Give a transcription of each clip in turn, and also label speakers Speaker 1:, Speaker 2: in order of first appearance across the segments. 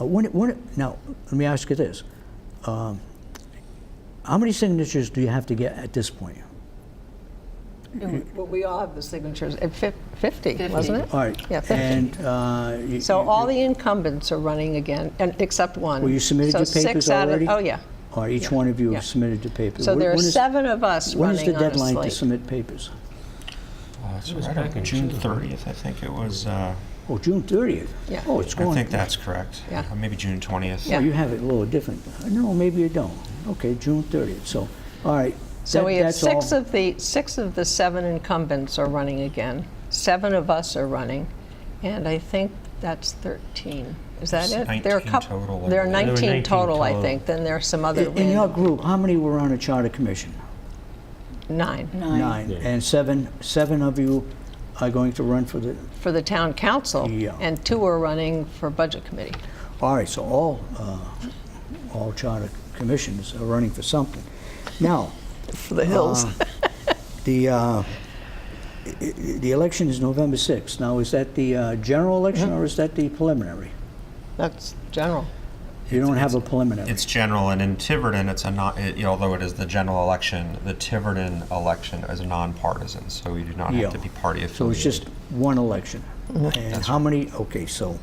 Speaker 1: Uh, when, when, now, let me ask you this. Um, how many signatures do you have to get at this point?
Speaker 2: Well, we all have the signatures, Uh, fif- 50, wasn't it?
Speaker 1: All right.
Speaker 2: Yeah, 50.
Speaker 1: And, uh, you-
Speaker 2: So
Speaker 1: you-
Speaker 2: all the incumbents are running again, and except one.
Speaker 1: Well, you submitted
Speaker 2: So
Speaker 1: your
Speaker 2: six
Speaker 1: papers
Speaker 2: out of-
Speaker 1: already?
Speaker 2: Oh, yeah.
Speaker 1: All right, each one of you
Speaker 2: yeah.
Speaker 1: have submitted the paper.
Speaker 2: So
Speaker 1: When-
Speaker 2: there are
Speaker 1: when is-
Speaker 2: seven of us
Speaker 1: When is the
Speaker 2: running on a
Speaker 1: deadline to
Speaker 2: slate.
Speaker 1: submit papers?
Speaker 3: Oh, that's
Speaker 4: It was
Speaker 3: right,
Speaker 4: back in
Speaker 3: June
Speaker 4: June.
Speaker 3: 30th, I think it was, uh,
Speaker 1: Oh, June 30th?
Speaker 2: Yeah.
Speaker 1: Oh, it's
Speaker 3: I
Speaker 1: going.
Speaker 3: think that's correct.
Speaker 2: Yeah.
Speaker 3: Or Maybe June 20th.
Speaker 1: Oh,
Speaker 2: Yeah.
Speaker 1: you have it a little different. No, maybe you don't. Okay, June 30th, so, all right.
Speaker 2: So
Speaker 1: that-
Speaker 2: we have
Speaker 1: that's all.
Speaker 2: six of the, six of the seven incumbents are running again. Seven of us are running, and I think that's 13. Is that it?
Speaker 3: It's
Speaker 2: There are a
Speaker 3: 19
Speaker 2: coup-
Speaker 3: total, I
Speaker 2: There are
Speaker 3: believe.
Speaker 4: There were
Speaker 2: 19
Speaker 4: 19
Speaker 2: total, I
Speaker 4: total.
Speaker 2: think. Then there are some other
Speaker 1: In in your
Speaker 2: random,
Speaker 1: group, how many were on a charter commission?
Speaker 2: nine,
Speaker 1: Nine. And seven, seven of you are going to run for the,
Speaker 2: for the town council.
Speaker 1: Yeah.
Speaker 2: And two are running for budget committee.
Speaker 1: all right, so all, uh, all charter commissions are running for something. Now,
Speaker 2: For the hills.
Speaker 1: the, uh, i- i- the election is November 6th. Now, is that the uh, general election or is that the preliminary?
Speaker 2: That's general.
Speaker 1: You don't have a preliminary.
Speaker 3: It's general, and in Tiverton, it's a non, it- you know, although it is the general election, the Tiverton election is nonpartisan, so you do not
Speaker 1: Yeah.
Speaker 3: have to be party affiliated.
Speaker 1: So it's just one election. And how many, okay, so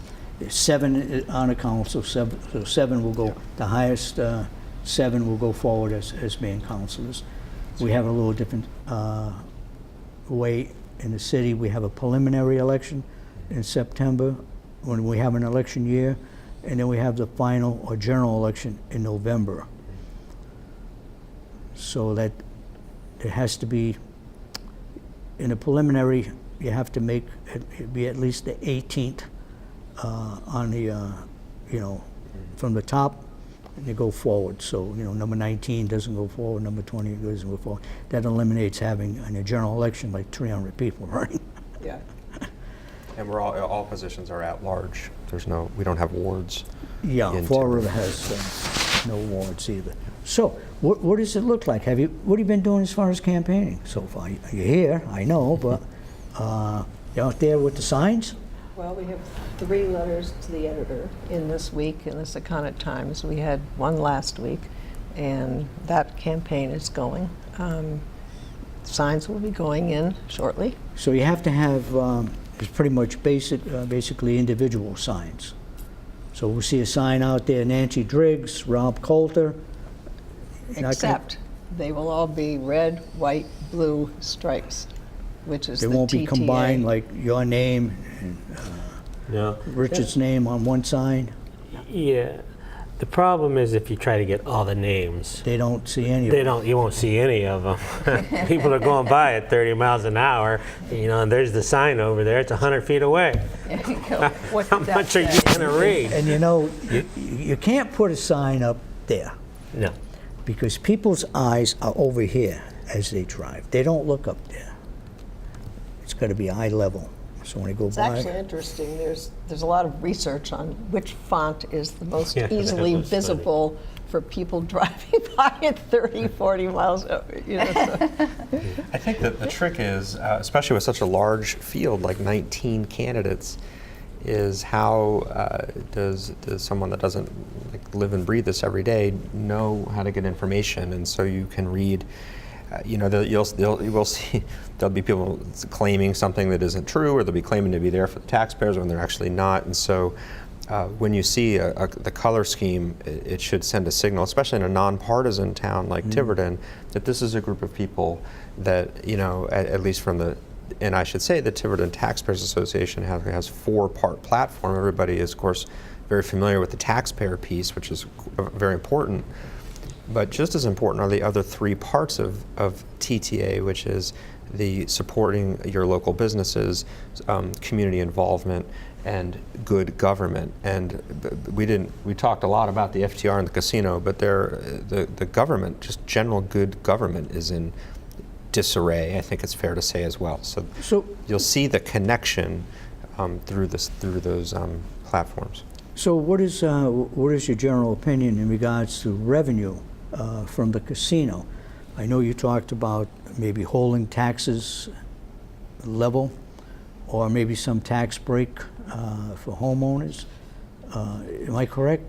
Speaker 1: seven i- on a council, seven, so seven will go, the highest uh, seven will go forward as, as being councilors. We have a little different uh, way in the city. We have a preliminary election in September, when we have an election year, and then we have the final or general election in November. So that, it has to be in a preliminary, you have to make, it it'd be at least the 18th uh, on the, uh, you know, from the top, and you go forward. So, you know, number 19 doesn't go forward, number 20 doesn't go forward. That eliminates having, in a general election, like 300 people running.
Speaker 3: Yeah. And we're all, all positions are at large. There's no, we don't have wards.
Speaker 1: Yeah,
Speaker 3: Into-
Speaker 1: Fall River has uh, no warrants either. So, what what does it look like? Have you, what have you been doing as far as campaigning so far? You- You're here, I know, but uh, you're out there with the signs?
Speaker 2: Well, we have three letters to the editor in this week, in the Secana Times. We had one last week, and that campaign is going. Um, Signs will be going in shortly.
Speaker 1: So you have to have, um, it's pretty much basic, uh, basically individual signs. So we'll see a sign out there, Nancy Driggs, Rob Coulter. gonna-
Speaker 2: Except they will all be red, white, blue stripes, which is
Speaker 1: They
Speaker 2: the
Speaker 1: won't be
Speaker 2: TTA.
Speaker 1: combined like your name and
Speaker 4: No.
Speaker 1: Richard's name on one sign.
Speaker 4: Yeah. The problem is if you try to get all the names,
Speaker 1: They don't see any of
Speaker 4: they
Speaker 1: it.
Speaker 4: don't. You won't see any of them. People are going by at 30 miles an hour. You know, and there's the sign over there. It's 100 feet away.
Speaker 2: There you go. What
Speaker 4: How
Speaker 2: did that
Speaker 4: much are
Speaker 2: say?
Speaker 4: you gonna read?
Speaker 1: And you know, you- you can't put a sign up there
Speaker 4: No.
Speaker 1: because people's eyes are over here as they drive. They don't look up there. It's got to be eye level. So when they go
Speaker 2: It's
Speaker 1: by.
Speaker 2: actually interesting. There's, there's a lot of research on which font is the most
Speaker 4: Yeah, that
Speaker 2: easily
Speaker 4: was funny.
Speaker 2: visible for people driving by at 30, 40 miles. uh, You know, so-
Speaker 3: I think that the trick is, uh, especially with such a large field like 19 candidates, is how uh, does does someone that doesn't like, live and breathe this every day know how to get information? And so you can read. Uh, you know, the- you'll, you'll, you will see there'll be people claiming something that isn't true, or they'll be claiming to be there for the taxpayers when they're actually not. And so, uh, when you see a, a, the color scheme, it, it should send a signal, especially in a nonpartisan town like Tiverton, that this is a group of people that, you know, at, at least from the, and I should say the Tiverton Taxpayers Association has, has four part platform. Everybody is, of course, very familiar with the taxpayer piece, which is uh, very important. But just as important are the other three parts of, of TTA, which is the supporting your local businesses, um, community involvement, and good government. And b- b- we didn't we talked a lot about the FTR and the casino, but there the the government, just general good government, is in disarray. I think it's fair to say as well. So,
Speaker 1: So-
Speaker 3: you'll see the connection um, through this through those um, platforms.
Speaker 1: So what is, uh, what is your general opinion in regards to revenue uh, from the casino? I know you talked about maybe holding taxes level, or maybe some tax break uh, for homeowners. Uh, Am I correct?